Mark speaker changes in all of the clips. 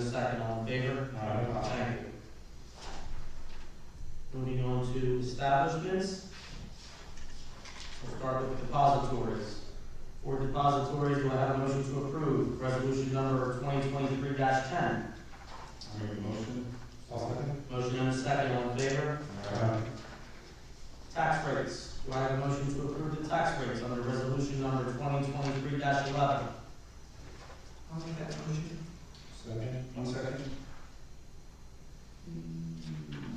Speaker 1: Second, all in favor?
Speaker 2: Aye.
Speaker 1: Aye. Moving on to establishments. We'll start with depositories. For depositories, do I have a motion to approve resolution number twenty twenty-three ten?
Speaker 2: I make a motion. Second.
Speaker 1: Motion and a second, all in favor?
Speaker 2: Aye.
Speaker 1: Tax rates, do I have a motion to approve the tax rates under resolution number twenty twenty-three eleven?
Speaker 3: I'll make that motion.
Speaker 2: Second. One second.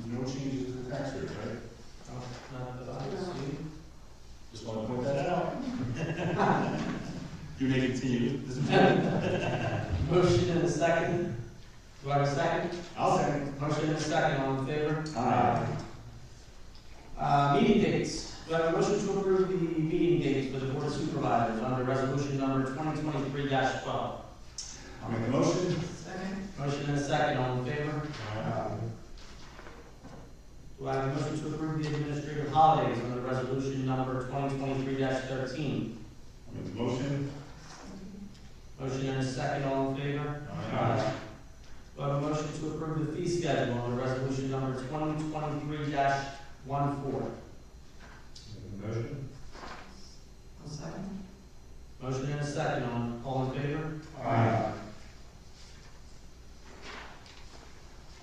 Speaker 2: No changes to the tax rate, right?
Speaker 1: Oh, Not that I see.
Speaker 2: Just want to point that out. You may continue.
Speaker 1: Motion and a second. Do I have a second?
Speaker 2: I'll second.
Speaker 1: Motion and a second, all in favor?
Speaker 2: Aye.
Speaker 1: Uh, meeting dates. Do I have a motion to approve the meeting dates for the board of supervisors under resolution number twenty twenty-three twelve?
Speaker 2: I'll make a motion.
Speaker 3: Second.
Speaker 1: Motion and a second, all in favor?
Speaker 2: Aye.
Speaker 1: Do I have a motion to approve the administrative holidays under resolution number twenty twenty-three thirteen?
Speaker 2: I'll make the motion.
Speaker 1: Motion and a second, all in favor? Do I have a motion to approve the fee schedule under resolution number twenty twenty-three 14
Speaker 2: Make a motion.
Speaker 3: I'll second.
Speaker 1: Motion and a second, all, all in favor?
Speaker 2: Aye.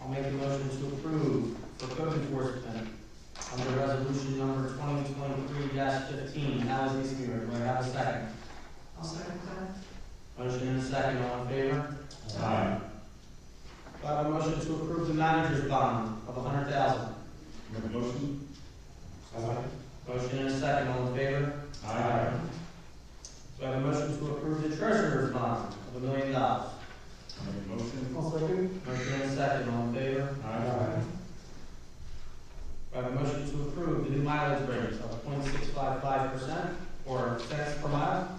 Speaker 1: I'll make a motion to approve for code enforcement under resolution number twenty twenty-three fifteen, Alice East Muir, do I have a second?
Speaker 3: I'll second that.
Speaker 1: Motion and a second, all in favor?
Speaker 2: Aye.
Speaker 1: Do I have a motion to approve the manager's bond of a hundred thousand?
Speaker 2: Make a motion. Second.
Speaker 1: Motion and a second, all in favor?
Speaker 2: Aye.
Speaker 1: Do I have a motion to approve the treasurer's bond of a million dollars?
Speaker 2: I'll make a motion.
Speaker 3: I'll second.
Speaker 1: Motion and a second, all in favor?
Speaker 2: Aye.
Speaker 1: Do I have a motion to approve the new mileage rate of 0.655 percent or cents per mile?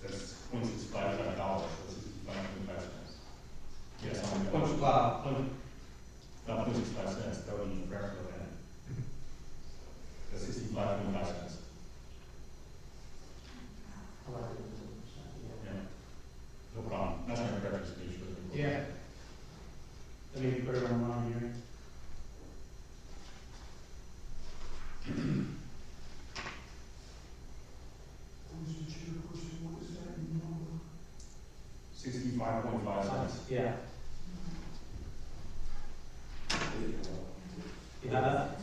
Speaker 2: That's point six five five dollars, that's five point five cents. Yes, I'll make a motion.
Speaker 1: Point, wow, point
Speaker 2: Not point six five cents, that would be correct, but then. That's sixty-five point five cents. Yeah. No problem, that's my correct speech for the.
Speaker 1: Yeah. Let me put it on wrong here.
Speaker 3: Mr. Chair, question, what is that number?
Speaker 2: Sixty-five point five cents.
Speaker 1: Yeah. You have that?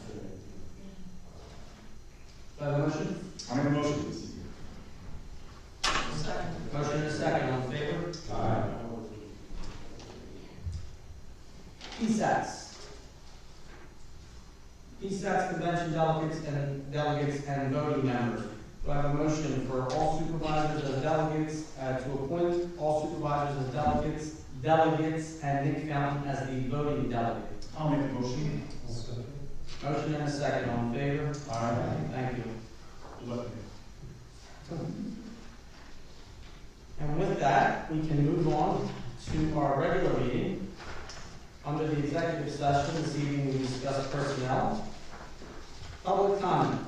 Speaker 1: Do I have a motion?
Speaker 2: I make a motion, please.
Speaker 3: I'll second.
Speaker 1: Motion and a second, all in favor?
Speaker 2: Aye.
Speaker 1: PSATs. PSATs convention delegates and delegates and voting members. Do I have a motion for all supervisors as delegates, uh, to appoint all supervisors as delegates, delegates, and Nick Fountain as the voting delegate?
Speaker 2: I'll make a motion.
Speaker 1: Motion and a second, all in favor?
Speaker 2: Aye.
Speaker 1: Thank you.
Speaker 2: Good luck.
Speaker 1: And with that, we can move on to our regular meeting. Under the executive session, this evening we discussed personnel. Public comment.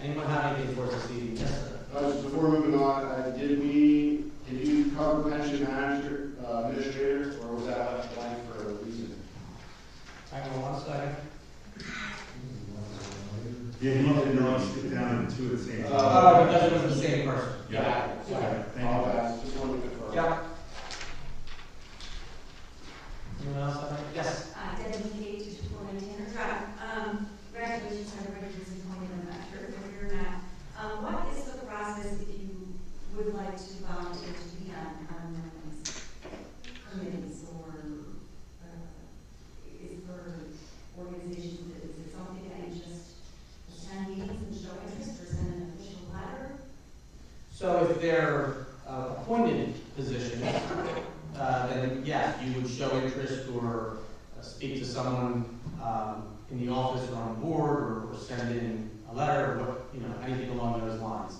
Speaker 1: Anyone have anything for us this evening? Yes, sir.
Speaker 4: Uh, just before moving on, uh, did we, did you cover pension manager, uh, administrator, or was that left blank for a reason?
Speaker 1: Hang on one second.
Speaker 5: Yeah, you want to know, sit down and two at the same time.
Speaker 1: Oh, because it was the same person.
Speaker 2: Yeah.
Speaker 4: Okay,
Speaker 5: Thank
Speaker 4: All
Speaker 5: you.
Speaker 4: right, just wanted to confirm.
Speaker 1: Yeah. Anyone else have any? Yes.
Speaker 6: Uh, dedicated to supporting Tanner Drive. Um, congratulations, everybody who's appointed, I'm not sure if you're not. Um, what is the process if you would like to volunteer to be on, on one of these committees or, uh, is for organizations, is it something that you just attend meetings and show interest, or send an official letter?
Speaker 1: So if they're uh, appointed positions, uh, then yes, you would show interest or uh, speak to someone um, in the office or on board or- or send in a letter or what, you know, anything along those lines.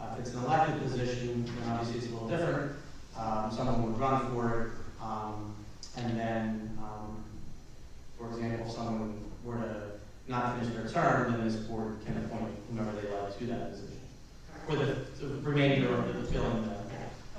Speaker 6: Uh,
Speaker 1: Uh, If it's an elected position, then obviously it's a little different. Um, Someone would run for it, um, and then, um, for example, if someone were to not finish their term, then this board can appoint whomever they like to that position. For the uh, the remainder of the filling that